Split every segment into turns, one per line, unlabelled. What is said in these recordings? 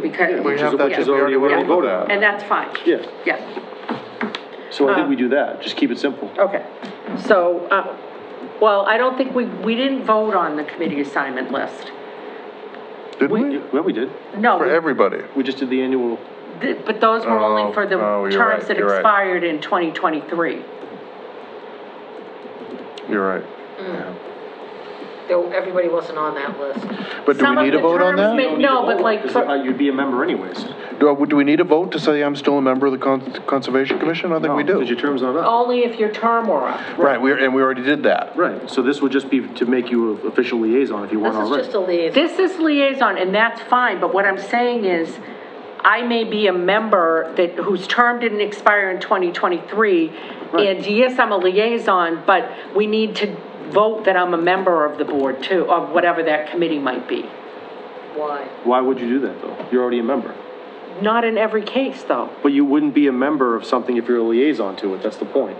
because.
We have that,
yeah.
which is already, we already voted on.
And that's fine.
Yeah.
Yeah,
So I think we do that, just keep it simple.
okay. So, uh, well, I don't think we, we didn't vote on the committee assignment list.
Didn't we?
Well, we did,
No,
For
we-
everybody.
we just did the annual,
th- but those were only
Oh,
for the
oh, you're
terms
right,
that
you're right.
expired in 2023.
You're right.
Though everybody wasn't on that list.
But do
Some
we
of
need a
the
vote on
terms may-
that?
No, but like,
because
for-
uh, you'd be a member anyways.
Do, do we need a vote to say I'm still a member of the Con- Conservation Commission? I think we
Because your
do.
term's not
Oh.
up.
only if your term were up.
Right, we, and we already did that.
Right, so this would just be to make you an official liaison if you want
This is
already.
just a liaison.
This is liaison, and that's fine, but what I'm saying is, I may be a member that, whose term didn't expire in 2023, and yes, I'm a liaison, but we need to vote that I'm a member of the board too, of whatever that committee might be.
Why?
Why would you do that, though? You're already a member.
Not in every case, though.
But you wouldn't be a member of something if you're a liaison to it, that's the point.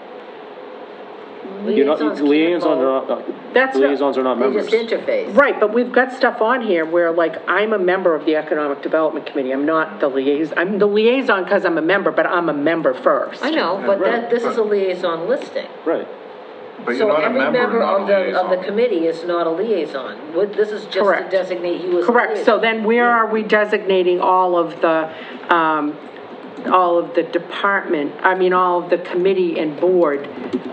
You're not,
Liaisons can't
liaisons
vote.
are not, uh,
That's not-
liaisons are not
They
members.
just interface.
Right, but we've got stuff on here where, like, I'm a member of the Economic Development Committee, I'm not the liaison, I'm the liaison because I'm a member, but I'm a member first.
I know, but
Right.
that, this is a liaison listing.
Right.
But you're not a member, and not a
So every member of the, of the
liaison.
committee is not a liaison. Would- This is just to
Correct.
designate you as a
Correct, so
liaison.
then where are we designating all of the, um, all of the department, I mean, all of the committee and board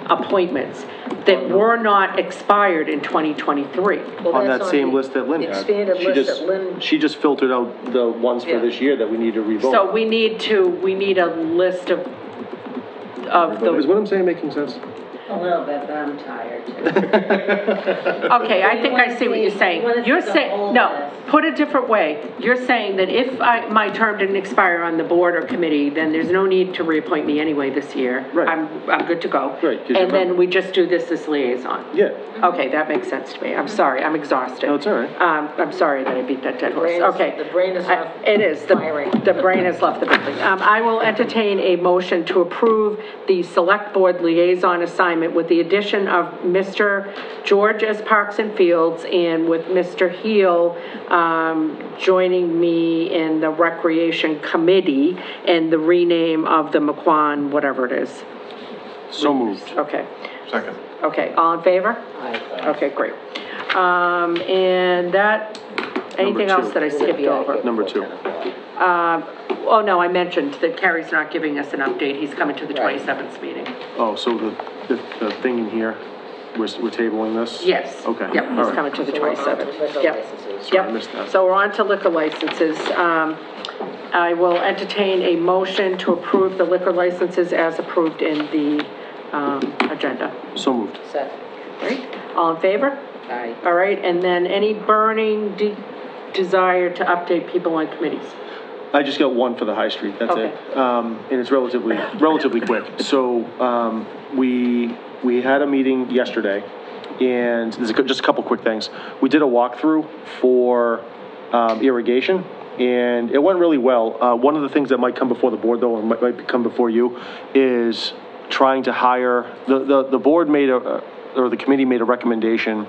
appointments that were not expired in 2023?
Well,
on
that's
that same
the
list that Lynn had.
Expanded
She
list
just-
that Lynn,
She just filtered out the ones for
Yeah.
this year that we need to revote.
So we need to, we need a list of, of
Is
the,
what I'm saying making sense?
A little bit, but I'm tired too.
okay, I think I see what
You
you're
wanna see
saying. You're
the
saying,
whole
no,
list.
put it a different way. You're saying that if I, my term didn't expire on the board or committee, then there's no need to reappoint me anyway this year.
Right.
I'm, I'm good to go.
Right, 'cause you're
And
member.
then we just do this as liaison.
Yeah.
Okay, that makes sense to me. I'm sorry, I'm exhausted.
No, it's all right.
Um, I'm sorry that I beat that dead horse,
brain is-
okay.
the brain is
I-
off
It is, the,
firing.
the brain has left the building. Um, I will entertain a motion to approve the select board liaison assignment with the addition of Mr. George as Parks and Fields and with Mr. Heel, um, joining me in the Recreation Committee and the rename of the McQuon, whatever it is.
So moved.
Okay.
Second.
Okay, all in favor? Okay, great. Um, and that, anything
Number two.
else that I skipped over?
Number two.
Oh, no, I mentioned that Kerry's not giving us an update, he's coming to the 27th meeting.
Oh, so the, the, the thing in here, we're, s- we're tabling this?
Yes.
Okay.
Yep,
all
he's
right.
coming to the
So uh, we're on to
27th.
liquor
Yep.
licenses.
Sorry, I missed
Yep,
that.
so we're on to liquor licenses. Um, I will entertain a motion to approve the liquor licenses as approved in the, um, agenda.
So moved.
Second.
Right, all in favor?
Aye.
All right, and then any burning de- desire to update people on committees?
I just got one for the High Street, that's it.
Okay.
Um, and it's relatively, relatively quick. So, um, we, we had a meeting yesterday, and there's a cou- just a couple quick things. We did a walkthrough for, um, irrigation, and it went really well. Uh, one of the things that might come before the board, though, and might, might come before you, is trying to hire, the, the, the board made a, uh, or the committee made a recommendation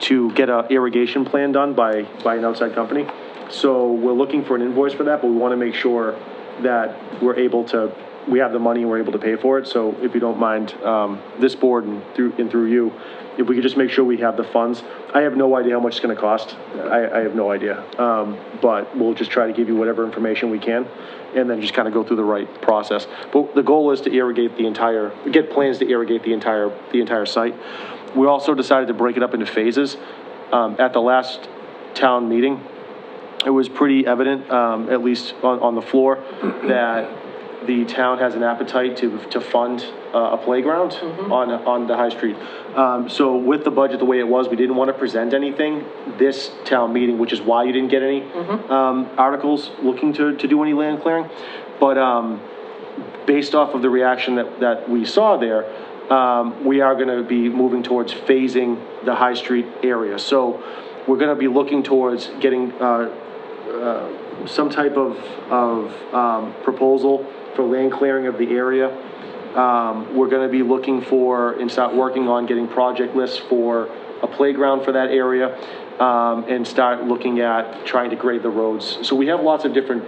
to get a irrigation plan done by, by an outside company. So we're looking for an invoice for that, but we want to make sure that we're able to, we have the money and we're able to pay for it. So if you don't mind, um, this board and through, and through you, if we could just make sure we have the funds. I have no idea how much it's going to cost. I, I have no idea. Um, but we'll just try to give you whatever information we can and then just kind of go through the right process. But the goal is to irrigate the entire, get plans to irrigate the entire, the entire site. We also decided to break it up into phases. Um, at the last town meeting, it was pretty evident, um, at least on, on the floor, that the town has an appetite to, to fund uh, a playground on, on the high street. Um, so with the budget the way it was, we didn't want to present anything this town meeting, which is why you didn't get any, um, articles looking to, to do any land clearing. But, um, based off of the reaction that, that we saw there, um, we are gonna be moving towards phasing the High Street area. So we're gonna be looking towards getting, uh, uh, some type of, of, um, proposal for land clearing of the area. Um, we're gonna be looking for and start working on getting project lists for a playground for that area, um, and start looking at trying to grade the roads. So we have lots of different